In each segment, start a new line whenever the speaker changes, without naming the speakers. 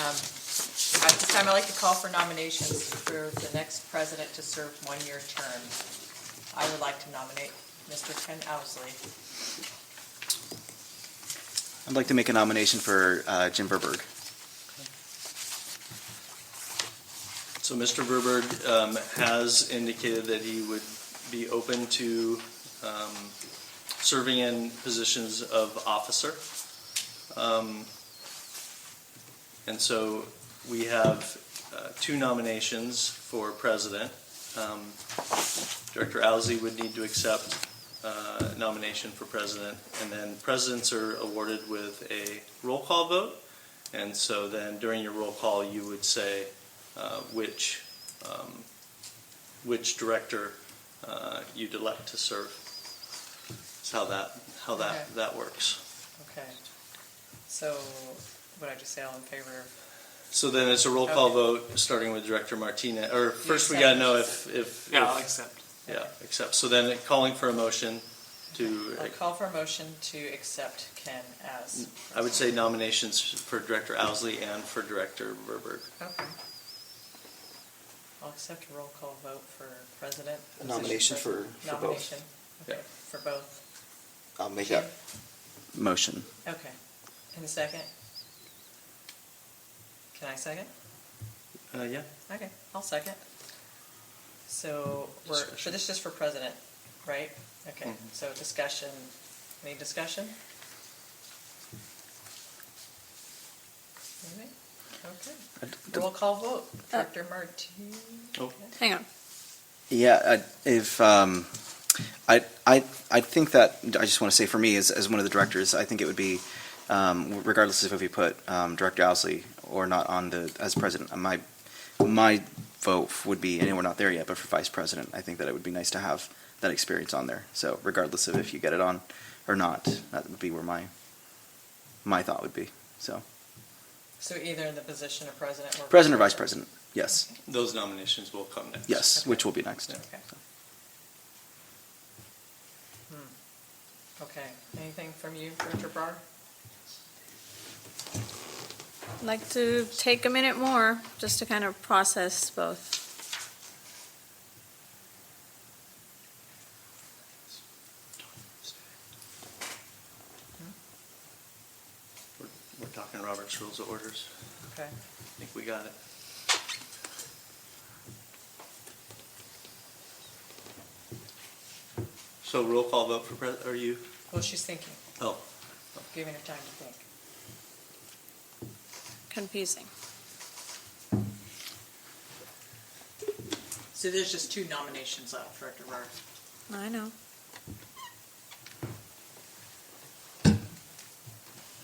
At this time, I'd like to call for nominations for the next president to serve one-year term. I would like to nominate Mr. Ken Owsley.
I'd like to make a nomination for uh, Jim Verberg.
So Mr. Verberg um, has indicated that he would be open to um, serving in positions of officer. Um, And so we have uh, two nominations for president. Um, Director Owsley would need to accept uh, nomination for president, and then presidents are awarded with a roll call vote. And so then during your roll call, you would say, uh, which, um, which director uh, you'd elect to serve. That's how that, how
Okay.
that, that works.
Okay. So, what did I just say, all in favor?
So then it's a roll call
Okay.
vote, starting with Director Martinez, or first we
accept.
gotta know if, if.
Yeah, I'll
if-
accept.
Yeah, accept. So then calling for a motion to,
I'll call for a motion to accept Ken as.
I would say nominations for Director Owsley and for Director Verberg.
Mm.
Okay. I'll accept a roll call vote for president.
A nomination for- for both.
Nomination, okay,
Yeah.
for both.
I'll make
that
Motion.
Okay. And a second? Can I second?
Uh, yeah?
Okay, I'll second. So, we're, so
Discussion.
this is just for president, right? Okay,
Mm-hmm.
Mhm.
so discussion, any discussion? Anything? Okay, roll call vote, Director Martine.
Oh.
Hang on.
Yeah, I, if um, I, I, I think that I just want to say for me as, as one of the directors, I think it would be um, regardless of if you put um, Director Owsley or not on the as president. My my vote would be, and we're not there yet, but for vice president, I think that it would be nice to have that experience on there. So regardless of if you get it on or not, that would be where my my thought would be. So
So either in the position of president or.
president or vice president, yes,
Those nominations will come next.
yes, which will be next.
Okay. Hmm. Okay, anything from you, Director Barr?
I'd like to take a minute more just to kind of process both.
We're- We're talking Robert's Rules of Orders.
Okay.
I think we got it. So roll call vote for pres, are you?
Well, she's thinking,
Oh,
giving her time to think.
Confusing.
So there's just two nominations left, Director Barr.
I know.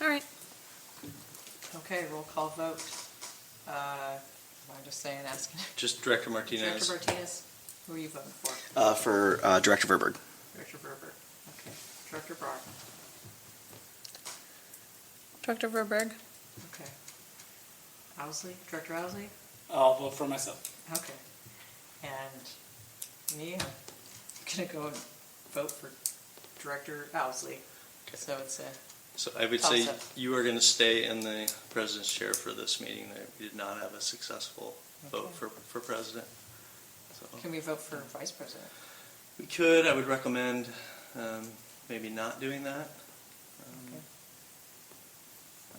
All right.
Okay, roll call vote. Uh, I'm just saying, asking.
just Director
Director
Martinez.
Martinez, who are you voting for?
Uh, for uh, Director Verberg.
Director Berber. Okay. Director Barr.
Dr. Verberg?
Okay. Owsley, Director Owsley?
I'll vote for myself.
Okay. And me, I'm gonna go and vote for Director Owsley. So it's a,
So I would say
Toss-up.
you are going to stay in the president's chair for this meeting. That We did not have a successful vote
Okay.
for, for president. So
can we vote for Vice President?
we could, I would recommend um, maybe not doing that. Um,
Okay.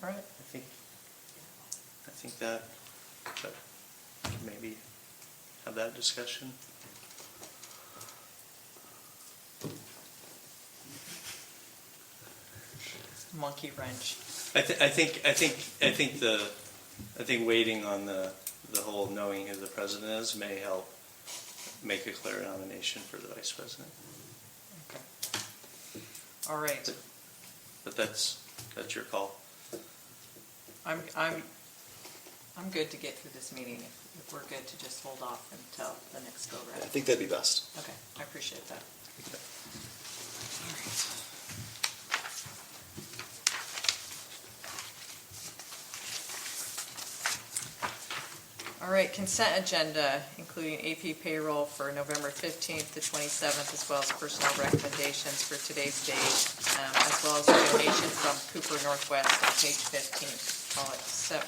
All right.
I think, I think that, but maybe have that discussion.
Monkey wrench.
I, th- I think I think I think the I think waiting on the the whole knowing who the president is may help make a clear nomination for the vice president.
Okay. All right.
But that's that's your call.
I'm, I'm, I'm good to get through this meeting. If if we're good to just hold off until the next go round.
think that'd be best.
Okay, I appreciate that. All right, consent agenda, including AP payroll for November 15th to 27th, as well as personal recommendations for today's date, um, as well as donation from Cooper Northwest on page 15. I'll accept